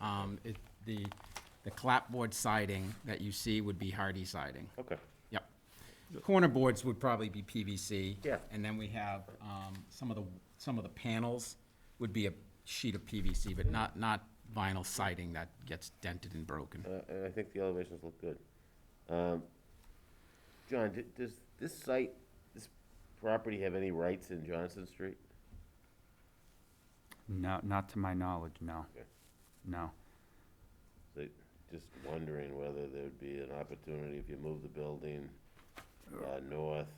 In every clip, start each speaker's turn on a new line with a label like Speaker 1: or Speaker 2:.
Speaker 1: Um, it, the, the clapboard siding that you see would be hardy siding.
Speaker 2: Okay.
Speaker 1: Yep. Corner boards would probably be PVC.
Speaker 2: Yeah.
Speaker 1: And then we have, um, some of the, some of the panels would be a sheet of PVC, but not, not vinyl siding that gets dented and broken.
Speaker 2: Uh, And I think the elevations look good. Um, John, d- does this site, this property have any rights in Johnson Street?
Speaker 3: No, not to my knowledge, no.
Speaker 2: Okay.
Speaker 3: No.
Speaker 2: So, Just wondering whether there'd be an opportunity if you move the building uh, north,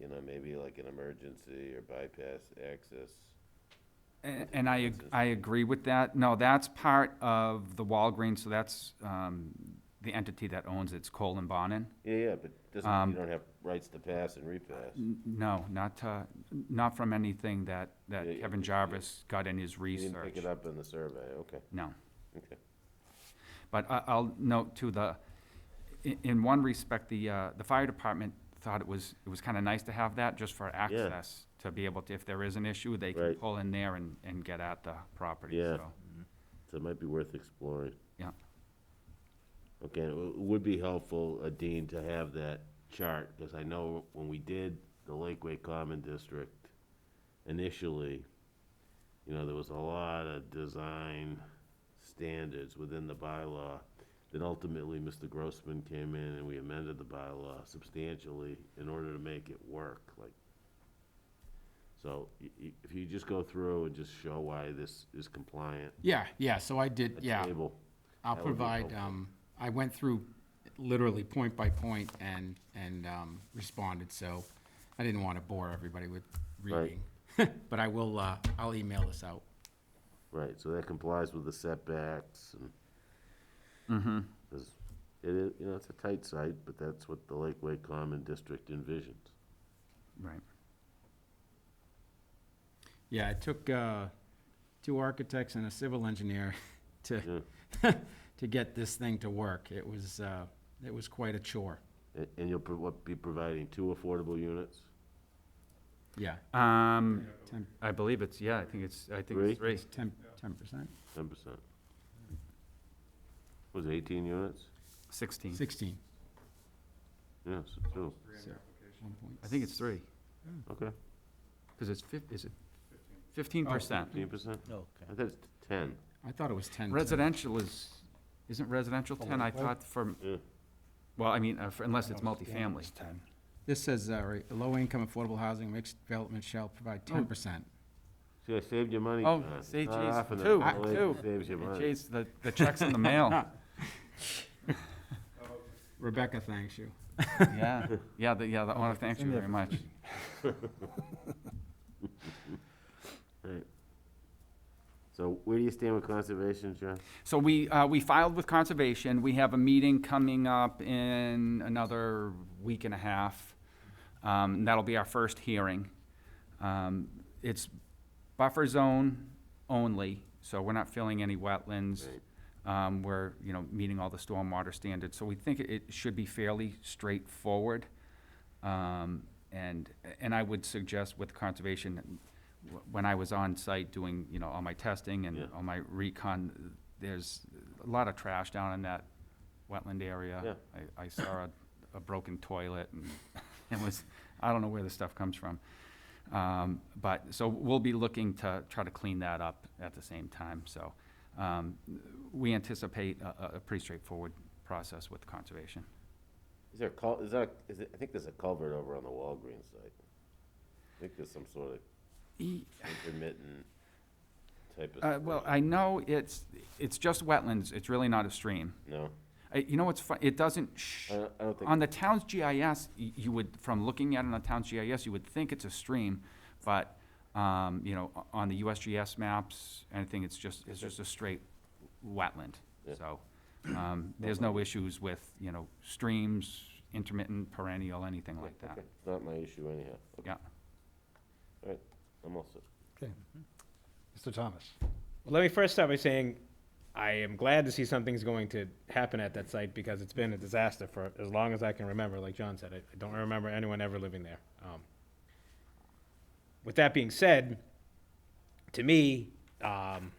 Speaker 2: you know, maybe like an emergency or bypass access.
Speaker 3: A- And I, ag- I agree with that. No, that's part of the Walgreens, so that's um, the entity that owns it's Cole and Bonin.
Speaker 2: Yeah, yeah, but doesn't,
Speaker 3: Um,
Speaker 2: you don't have rights to pass and repass.
Speaker 3: N- No, not to, not from anything that,
Speaker 2: Yeah,
Speaker 3: that
Speaker 2: yeah,
Speaker 3: Kevin
Speaker 2: yeah.
Speaker 3: Jarvis got in his
Speaker 2: You didn't
Speaker 3: research.
Speaker 2: pick it up in the survey, okay,
Speaker 3: No.
Speaker 2: okay.
Speaker 3: But I, I'll note too, the, in, in one respect, the, uh, the fire department thought it was, it was kinda nice to have that, just for access, to be able to, if there is an issue, they can
Speaker 2: Right.
Speaker 3: pull in there and, and get at the property,
Speaker 2: Yeah.
Speaker 3: so.
Speaker 2: So it might be worth exploring.
Speaker 3: Yeah.
Speaker 2: Okay, it w- would be helpful, uh, Dean, to have that chart, because I know when we did the Lakeway Common District initially, you know, there was a lot of design standards within the bylaw. Then ultimately, Mr. Grossman came in and we amended the bylaw substantially in order to make it work, like. So y- y- if you just go through and just show why this is compliant,
Speaker 1: Yeah, yeah, so I did,
Speaker 2: a
Speaker 1: yeah.
Speaker 2: table.
Speaker 1: I'll
Speaker 2: That would be
Speaker 1: provide,
Speaker 2: helpful.
Speaker 1: um, I went through literally point by point and, and, um, responded, so I didn't wanna bore everybody with
Speaker 2: Right.
Speaker 1: reading. But I will, uh, I'll email this out.
Speaker 2: Right, so that complies with the setbacks and.
Speaker 3: Mm-hmm.
Speaker 2: 'cause It is, you know, it's a tight site, but that's what the Lakeway Common District envisions.
Speaker 3: Right.
Speaker 1: Yeah, it took, uh, two architects and a civil engineer to, to get this thing to work. It was, uh, it was quite a chore,
Speaker 2: A- And you'll pro- what, be providing two affordable units?
Speaker 1: yeah.
Speaker 3: Um,
Speaker 1: Ten,
Speaker 3: I believe it's, yeah, I think it's, I think it's three.
Speaker 1: ten, ten percent,
Speaker 2: Ten percent. Was it eighteen units?
Speaker 3: Sixteen.
Speaker 1: sixteen.
Speaker 2: Yes, two,
Speaker 1: so, one point
Speaker 3: I think it's three,
Speaker 2: okay,
Speaker 3: because it's fif, is it fifteen percent?
Speaker 2: fifteen percent?
Speaker 4: Okay.
Speaker 2: I thought it's ten,
Speaker 1: I thought it was ten.
Speaker 3: Residential is, isn't residential ten? I thought for,
Speaker 2: yeah,
Speaker 3: well, I mean, uh, for- unless it's multifamily.
Speaker 4: ten.
Speaker 1: This says, uh, right, low-income affordable housing mixed development shall provide ten percent.
Speaker 2: see, I saved you money.
Speaker 3: Oh,
Speaker 2: John.
Speaker 3: see,
Speaker 2: Not
Speaker 3: geez,
Speaker 2: often that Ah,
Speaker 3: two,
Speaker 2: the lake
Speaker 3: two.
Speaker 2: Saves you money.
Speaker 3: Jeez, the, the check's in the mail.
Speaker 1: Rebecca thanks you.
Speaker 3: Yeah, yeah, the, yeah, the, I want to thank you very much.
Speaker 2: Right. So where do you stand with conservation, John?
Speaker 3: So we, uh, we filed with conservation. We have a meeting coming up in another week and a half. Um, and that'll be our first hearing. Um, it's buffer zone only, so we're not filling any wetlands. Um, we're, you know, meeting all the stormwater standards, so we think it- it should be fairly straightforward. Um, and, and I would suggest with conservation, wh- when I was on site doing, you know, all my testing
Speaker 2: Yeah.
Speaker 3: and all my recon, there's a lot of trash down in that wetland area.
Speaker 2: Yeah.
Speaker 3: I, I saw a, a broken toilet and it was, I don't know where this stuff comes from. Um, but, so we'll be looking to try to clean that up at the same time, so. Um, we anticipate a, a- a pretty straightforward process with conservation.
Speaker 2: Is there a cul, is that, is it, I think there's a culvert over on the Walgreens site. I think there's some sort of intermittent type of.
Speaker 3: Uh, well, I know it's, it's just wetlands, it's really not a stream.
Speaker 2: No,
Speaker 3: Uh, you know what's fun, it doesn't sh-
Speaker 2: I don't, I don't think.
Speaker 3: uh, On the town's GIS, y- you would, from looking at it on the town's GIS, you would think it's a stream, but, um, you know, o- on the USGS maps, anything, it's just, it's just a straight wetland.
Speaker 2: Yeah.
Speaker 3: So, um, there's no issues with, you know, streams, intermittent, perennial, anything like that.
Speaker 2: Okay, it's Not my issue anyhow. Okay,
Speaker 3: Yeah.
Speaker 2: All right, I'm all set.
Speaker 4: Okay. Mr. Thomas?
Speaker 5: Well, let me first start by saying I am glad to see something's going to happen at that site because it's been a disaster for as long as I can remember. Like John said, I, I don't remember anyone ever living there. Um, with that being said, to me, um,